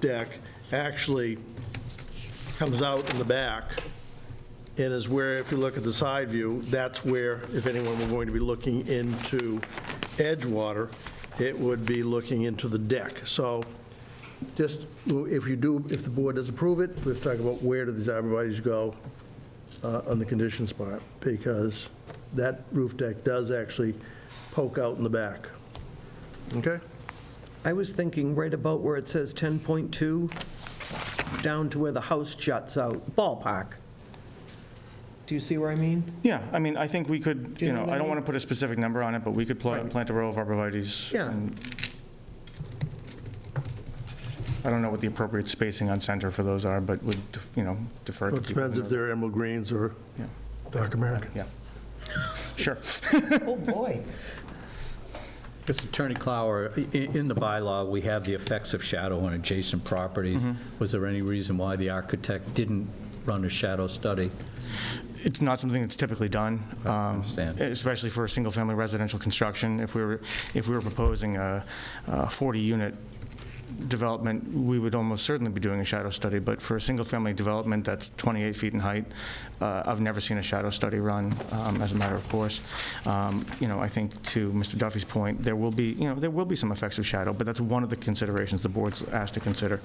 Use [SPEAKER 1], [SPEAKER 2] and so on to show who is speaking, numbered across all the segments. [SPEAKER 1] deck actually comes out in the back and is where, if you look at the side view, that's where, if anyone were going to be looking into Edgewater, it would be looking into the deck. So just, if you do, if the board does approve it, we have to talk about where do these arborvitae's go uh, on the condition spot, because that roof deck does actually poke out in the back. Okay?
[SPEAKER 2] I was thinking right about where it says 10.2, down to where the house juts out, ballpark. Do you see where I mean?
[SPEAKER 3] Yeah, I mean, I think we could,
[SPEAKER 2] you
[SPEAKER 3] you
[SPEAKER 2] know
[SPEAKER 3] know,
[SPEAKER 2] what I
[SPEAKER 3] I don't
[SPEAKER 2] mean?
[SPEAKER 3] want to put a specific number on it, but we could pl-
[SPEAKER 2] Right.
[SPEAKER 3] plant a row of arborvitae's.
[SPEAKER 2] Yeah.
[SPEAKER 3] and- I don't know what the appropriate spacing on center for those are, but would, you know, defer to
[SPEAKER 1] It
[SPEAKER 3] people.
[SPEAKER 1] depends
[SPEAKER 3] who
[SPEAKER 1] if they're emerald greens or
[SPEAKER 3] know.
[SPEAKER 1] dark American.
[SPEAKER 3] Yeah. Sure.
[SPEAKER 2] Oh, boy.
[SPEAKER 4] Mr. Attorney Clower, i- in the bylaw, we have the effects of shadow on adjacent properties. Was there any reason why the architect didn't run a shadow study?
[SPEAKER 3] It's not something that's typically done, um,
[SPEAKER 4] understand.
[SPEAKER 3] especially for a single-family residential construction. If we were, if we were proposing a 40-unit development, we would almost certainly be doing a shadow study, but for a single-family development that's 28 feet in height, uh, I've never seen a shadow study run, um, as a matter of course. Um, You know, I think to Mr. Duffy's point, there will be, you know, there will be some effects of shadow, but that's one of the considerations the board's asked to consider.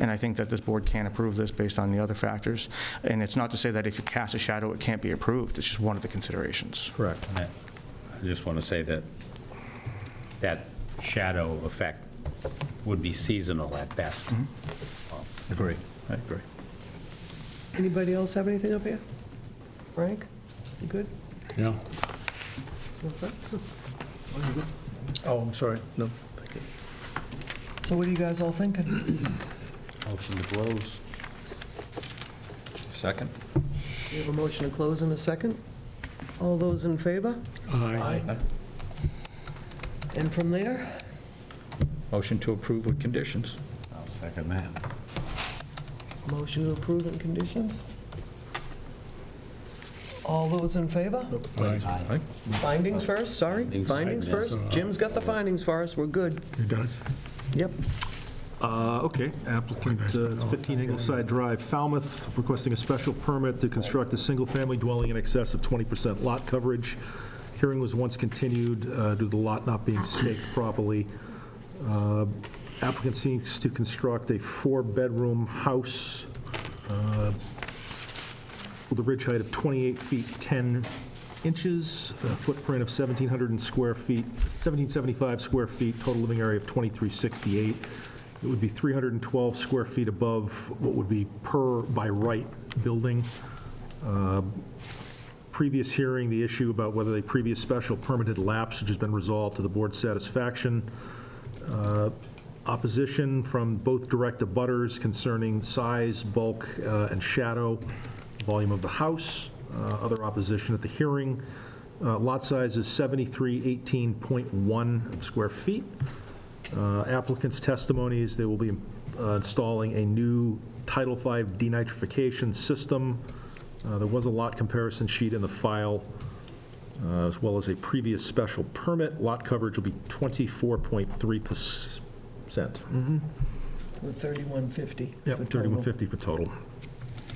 [SPEAKER 3] And I think that this board can approve this based on the other factors. And it's not to say that if you cast a shadow, it can't be approved, it's just one of the considerations.
[SPEAKER 4] Correct.
[SPEAKER 5] I I just want to say that that shadow effect would be seasonal at best.
[SPEAKER 4] Mm-hmm. Agree. I agree.
[SPEAKER 2] Anybody else have anything up here? Frank, you good?
[SPEAKER 5] Yeah.
[SPEAKER 2] All set?
[SPEAKER 1] Oh, I'm sorry, no.
[SPEAKER 2] So what are you guys all thinking?
[SPEAKER 5] Motion to close.
[SPEAKER 4] Second?
[SPEAKER 2] We have a motion to close in a second. All those in favor?
[SPEAKER 4] Aye.
[SPEAKER 2] And from there,
[SPEAKER 4] Motion to approve with conditions.
[SPEAKER 5] I'll second that.
[SPEAKER 2] motion to approve and conditions? All those in favor?
[SPEAKER 4] Aye.
[SPEAKER 2] Findings first, sorry,
[SPEAKER 5] Findings.
[SPEAKER 2] findings first. Jim's got the findings for us, we're good.
[SPEAKER 6] He does?
[SPEAKER 2] Yep.
[SPEAKER 7] Uh, Okay, applicant, uh, it's 15 Ingleside Drive, Falmouth, requesting a special permit to construct a single-family dwelling in excess of 20% lot coverage. Hearing was once continued uh, due to the lot not being staked properly. Uh, Applicant seeks to construct a four-bedroom house uh, with a ridge height of 28 feet 10 inches, a footprint of 1,700 and square feet, 1,775 square feet, total living area of 2,368. It would be 312 square feet above what would be per by right building. Um, Previous hearing, the issue about whether the previous special permit had lapsed, which has been resolved to the board's satisfaction opposition from both direct abutters concerning size, bulk, uh, and shadow, volume of the house, uh, other opposition at the hearing. Uh, Lot size is 7318.1 square feet. Uh, Applicant's testimony is they will be uh, installing a new Title V denitrification system. Uh, There was a lot comparison sheet in the file uh, as well as a previous special permit. Lot coverage will be 24.3%.
[SPEAKER 2] With 3150.
[SPEAKER 7] Yep, 3150 for total.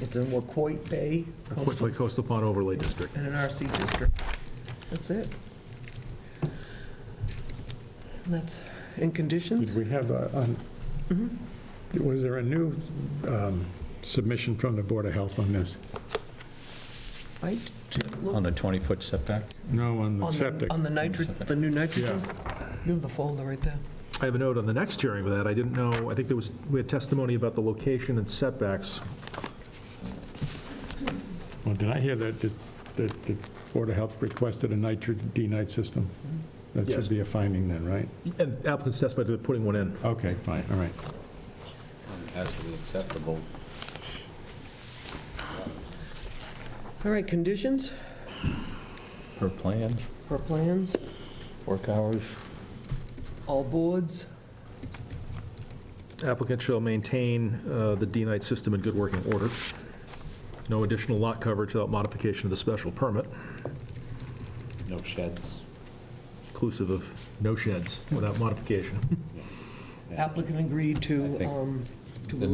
[SPEAKER 2] It's in Wacoit Bay Coastal
[SPEAKER 7] Quickly Coastal Pond Overlay District.
[SPEAKER 2] and an RC district. That's it. And that's, in
[SPEAKER 6] Did
[SPEAKER 2] conditions?
[SPEAKER 6] we have, a- on- was there a new um, submission from the Board of Health on this?
[SPEAKER 2] I didn't look
[SPEAKER 4] On the 20-foot setback?
[SPEAKER 6] No, on the
[SPEAKER 2] On the,
[SPEAKER 6] septic?
[SPEAKER 2] on the nitrogen, the new nitrogen?
[SPEAKER 6] Yeah.
[SPEAKER 2] You have the folder right there.
[SPEAKER 7] I have a note on the next hearing of that. I didn't know, I think there was, we had testimony about the location and setbacks.
[SPEAKER 6] Well, did I hear that, that- that the Board of Health requested a nitrate denite system? That
[SPEAKER 7] Yes.
[SPEAKER 6] should be a finding then, right?
[SPEAKER 7] And applicants testified to putting one in.
[SPEAKER 6] Okay, fine, all right.
[SPEAKER 5] Has to be acceptable.
[SPEAKER 2] All right, conditions
[SPEAKER 4] Her plans?
[SPEAKER 2] or plans,
[SPEAKER 4] Work hours?
[SPEAKER 2] all boards,
[SPEAKER 7] Applicant shall maintain uh, the D-Night system in good working order. No additional lot coverage without modification of the special permit,
[SPEAKER 5] No sheds.
[SPEAKER 7] inclusive of no sheds without modification.
[SPEAKER 2] applicant agreed
[SPEAKER 5] I
[SPEAKER 2] to
[SPEAKER 5] think-
[SPEAKER 2] um,